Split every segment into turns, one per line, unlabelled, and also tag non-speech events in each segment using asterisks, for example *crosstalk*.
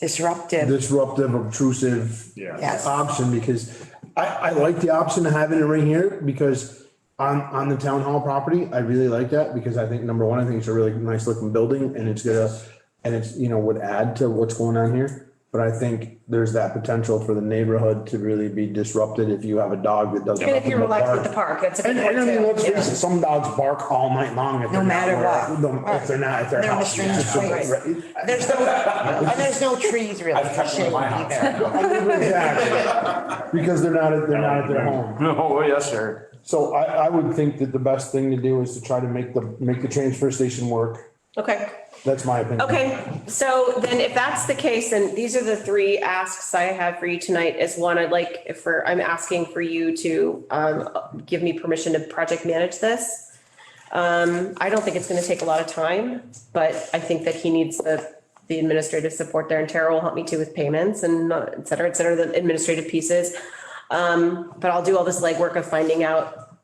disruptive.
disruptive, obtrusive.
Yeah.
Yes.
Option because I, I like the option of having it right here because on, on the town hall property, I really like that because I think, number one, I think it's a really nice looking building and it's gonna, and it's, you know, would add to what's going on here. But I think there's that potential for the neighborhood to really be disrupted if you have a dog that doesn't.
And if you're relaxed at the park, that's a
And,
good
and I
one
mean,
too.
let's face it, some dogs bark all night long. if they're not
matter
where-
what.
no, If they're not at their
They're on the
house.
strange place.
Right.
There's no, and there's no trees really.
I've kept them in my house.
either.
Exactly. Because they're not, at they're not at their
*laughs*
home.
No, yes, sir.
So I, I would think that the best thing to do is to try to make the, make the transfer station work.
Okay,
That's my opinion.
okay. So then if that's the case, then these are the three asks I have for you tonight is one, I'd like if for, I'm asking for you to um, give me permission to project manage this. Um, I don't think it's gonna take a lot of time, but I think that he needs the, the administrative support there and Tara will help me too with payments and uh, et cetera, et cetera, the administrative pieces. Um, but I'll do all this legwork of finding out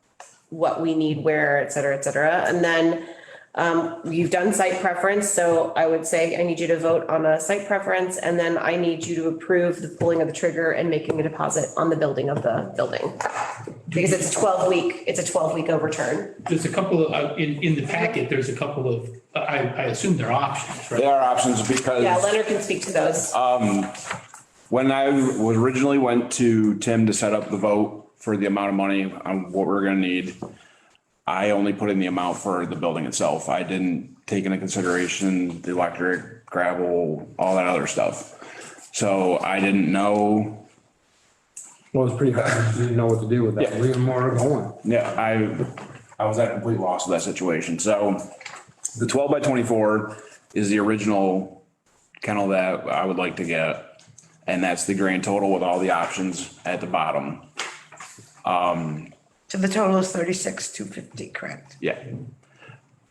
what we need where, et cetera, et cetera. And then um, you've done site preference, so I would say I need you to vote on a site preference and then I need you to approve the pulling of the trigger and making a deposit on the building of the building. Because it's a twelve week, it's a twelve week overturn.
There's a couple of, uh, in, in the packet, there's a couple of, uh, I, I assume they're options,
There
right?
are options because.
Yeah, Leonard can speak to those.
When I was originally went to Tim to set up the vote for the amount of money on what we're gonna need, I only put in the amount for the building itself. I didn't take into consideration the electric, gravel, all that other stuff. So I didn't know,
Well, it's pretty hard. You didn't know what to do with that.
Yeah.
Leave them more going.
yeah, I, I was at a complete loss of that situation. So the twelve by twenty-four is the original kennel that I would like to get. And that's the grand total with all the options at the bottom.
So the total is thirty-six, two fifty, correct?
Yeah.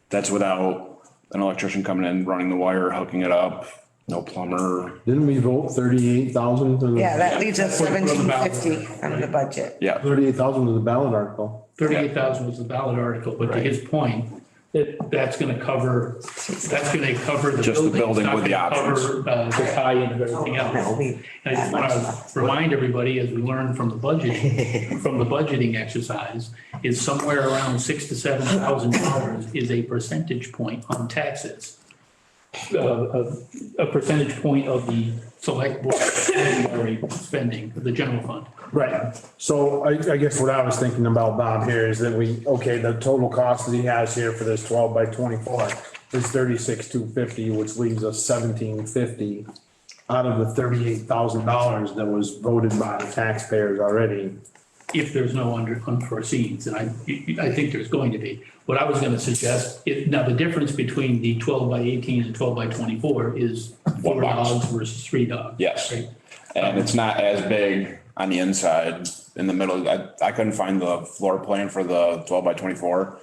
That's without an electrician coming in, running the wire, hooking it up, no plumber.
Didn't we vote thirty-eight thousand to the?
Yeah, that leaves us
That's what we're
seventeen
about.
fifty on the budget.
Yeah,
Thirty-eight thousand to the ballot article.
Thirty-eight thousand was the ballot article, but to his point, that, that's gonna cover, that's gonna cover the building.
Just the building
It's not
with the
gonna cover, Uh, the tie-in of everything
Oh, no,
else.
we-
And I just wanna remind everybody, as we learned from the budget, from the budgeting exercise, is somewhere around six to seven thousand dollars is a percentage point on taxes. Uh, A, a percentage point of the select board ordinary spending, the general fund.
Right. So I, I guess what I was thinking about, Bob, here is that we, okay, the total cost that he has here for this twelve by twenty-four is thirty-six, two fifty, which leaves us seventeen fifty out of the thirty-eight thousand dollars that was voted by the taxpayers already.
if there's no under unforeseen, and I, I think there's going to be. What I was gonna suggest, if, now the difference between the twelve by eighteen and twelve by twenty-four is four
One box.
dogs versus three dogs.
Yes.
right?
and it's not as big on the inside, in the middle. I, I couldn't find the floor plan for the twelve by twenty-four.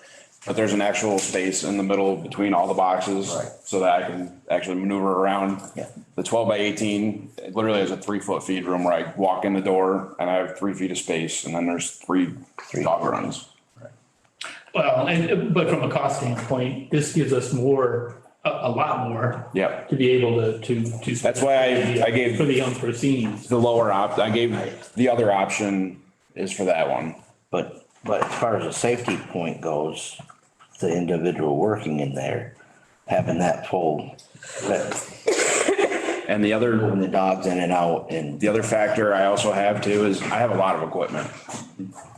But there's an actual space in the middle between all the boxes so that I can actually maneuver around.
Yeah.
The twelve by eighteen, it literally has a three-foot feed room where I walk in the door and I have three feet of space and then there's three dog runs.
Well, and, but from a cost standpoint, this gives us more, a, a lot more.
Yep.
To be able to, to, to.
That's why I- I gave-
For the unforeseen.
The lower op, I gave, the other option is for that one.
But, but as far as the safety point goes, the individual working in there, having that full, that,
And the
moving
other,
the dogs in and out and
the other factor I also have too is I have a lot of equipment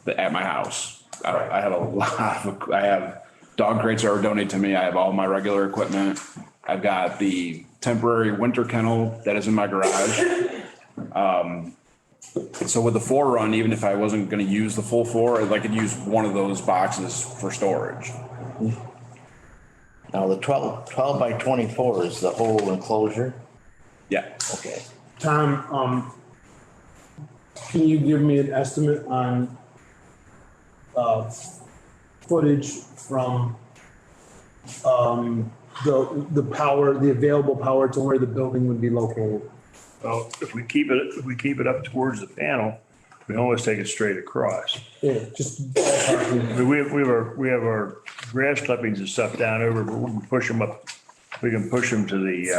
at my house. I, I have a *laughs* lot of, I have dog crates that are donated to me. I have all my regular equipment. I've got the temporary winter kennel that is in my garage. Um, so with the four run, even if I wasn't gonna use the full four, I could use one of those boxes for storage.
now the 12 12 by twenty-four is the whole enclosure.
Yeah.
Okay.
Tom, um, can you give me an estimate on, uh, footage from, um, the, the power, the available power to where the building would be located?
Well, if we keep it, if we keep it up towards the panel, we almost take it straight across.
Yeah, just.
I mean, we have, we have our, we have our grass clippings and stuff down over, but we can push them up. We can push them to the, uh,